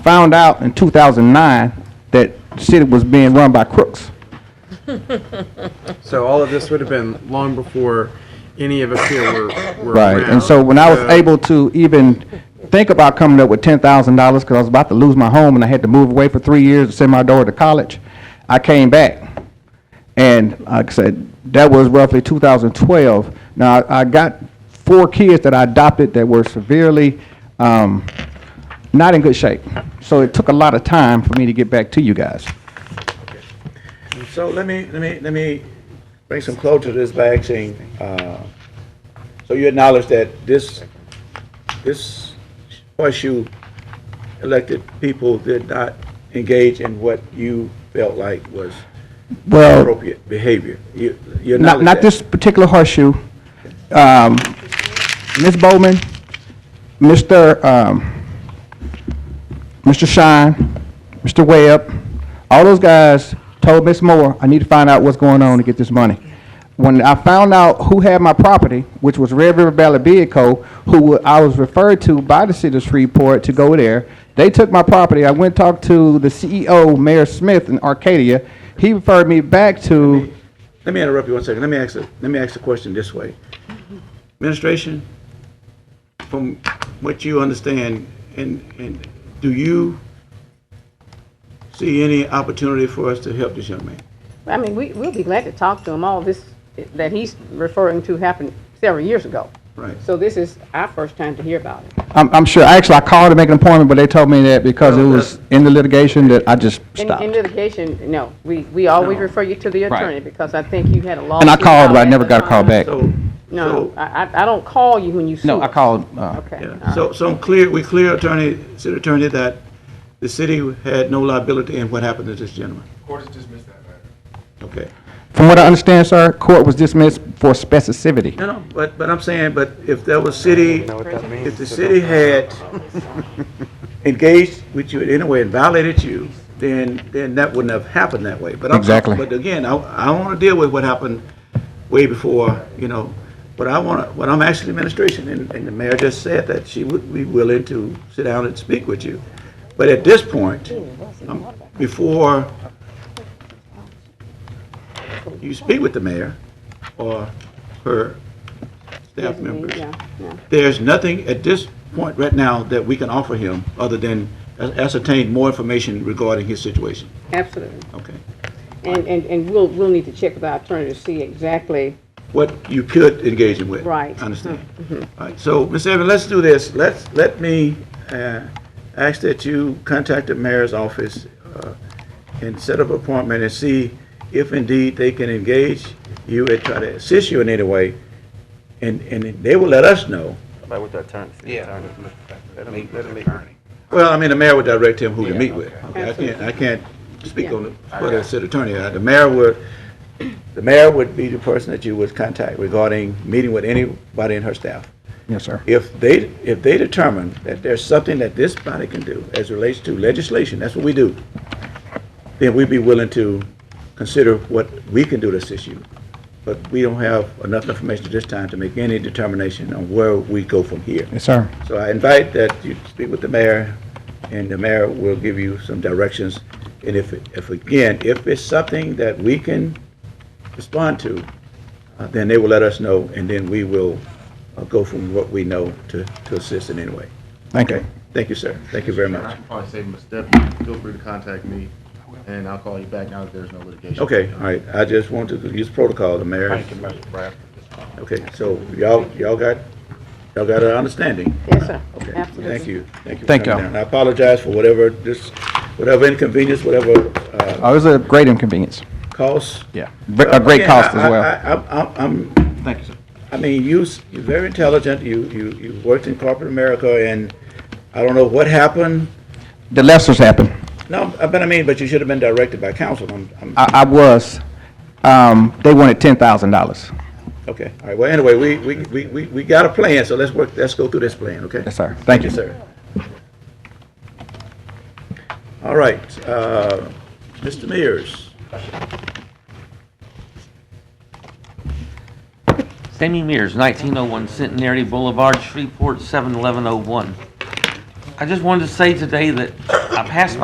found out in 2009 that the city was being run by crooks. So all of this would have been long before any of us here were, were Right, around. Uh, and so when I was So- able to even think about coming up with ten thousand dollars, because I was about to lose my home and I had to move away for three years to send my daughter to college, I came back. And like I said, that was roughly two thousand twelve. Now, I I got four kids that I adopted that were severely, um, not in good shape. So it took a lot of time for me to get back to you guys. So let me, let me, let me bring some closure to this by asking, uh, so you acknowledge that this, this horseshoe elected people did not engage in what you felt like was Well, appropriate behavior? You, you not, acknowledge not that? this particular horseshoe. Um, Ms. Bowman, Mr., um, Mr. Shine, Mr. Webb, all those guys told Ms. Moore, I need to find out what's going on to get this money. When I found out who had my property, which was Red River Valley Bid Co., who I was referred to by the city of Shreveport to go there, they took my property. I went and talked to the CEO, Mayor Smith in Arcadia. He referred me back to, Let me interrupt you one second. Let me ask, the- let me ask the question this way. Administration, from what you understand, and, and do you see any opportunity for us to help this young man? I mean, we, we'll be glad to talk to him. All this that he's referring to happened several years ago. Right. So this is our first time to hear about it. I'm, I'm sure, actually, I called to make an appointment, but they told me that because it Well, was in the litigation that I just In, stopped. in litigation, no, we, we always No. refer you to the Right. attorney because I think you had a law. And I called, but I never got a call back. So. No, so- I, uh-uh. I- I don't call you when you sue. No, I us. called, uh, Okay. all Yeah, right. so, so I'm clear, we clear attorney, city attorney, that the city had no liability in what happened to this gentleman. Court has dismissed that matter. Okay. from what I understand, sir, court was dismissed for specificity. No, no, but, but I'm saying, but if there was city, if the city had engaged with you in any way and violated you, then, then that wouldn't have happened that way. But I'm- Exactly. But again, I, I want to deal with what happened way before, you know, but I want to, what I'm asking the administration, and, and the mayor just said that she would be willing to sit down and speak with you. But at this point, um, before you speak with the mayor or her staff members, Yeah, yeah. there's nothing at this point right now that we can offer him other than ascertain more information regarding his situation. Absolutely. Okay. And, and, and we'll, we'll need to check with our attorney to see exactly, What you could engage him with. Right. Mm-hmm. I Understand. All right, so, Ms. Evans, let's do this. Let's, let me uh, ask that you contact the mayor's office uh, and set up an appointment and see if indeed they can engage you and try to assist you in any way. And, and they will let us know. Like with the attorney. Yeah. Let him, let him make. Well, I mean, the mayor would direct him who to meet with. Okay, I can't, Absolutely. I can't speak Yeah. on the, for the city attorney. Uh, The mayor would, the mayor would be the person that you would contact regarding meeting with anybody in her staff. Yes, sir. If they, if they determine that there's something that this body can do as it relates to legislation, that's what we do, then we'd be willing to consider what we can do to assist you. But we don't have enough information at this time to make any determination on where we go from here. Yes, sir. So I invite that you speak with the mayor, and the mayor will give you some directions. And if, if again, if it's something that we can respond to, uh, then they will let us know, and then we will uh, go from what we know to, to assist in any way. Thank you. Thank you, sir. Thank you very And I much. can probably save him a step. Feel free to contact me, and I'll call you back now that there's no litigation. Okay, all right. I just wanted to use protocol, the mayor. Thank you, Mr. Bradford. Okay, so y'all, y'all got, y'all got an understanding? yes, sir, Okay, absolutely. Thank you. Thank you. for Thank coming y'all. down. I apologize for whatever, this, whatever inconvenience, whatever uh, Oh, it was a great inconvenience. cost. Yeah. A great Again, cost as I- I- well. I- I'm- I'm, I'm- Thank you, sir. I mean, you, s- you're very intelligent, you, you, you worked in corporate America, and I don't know what happened. The lessons happened. No, I- but I mean, but you should have been directed by counsel, I'm, I'm, I, I was, um, they wanted ten thousand dollars. okay, all right, well, anyway, we, we, we, we we got a plan, so let's work, let's go through this plan, okay? Yes, sir. Thank you. sir. All right, uh, Mr. Mears, Sammy Mears, 1901 Centenary Boulevard, Shreveport, 71101. I just wanted to say today that I passed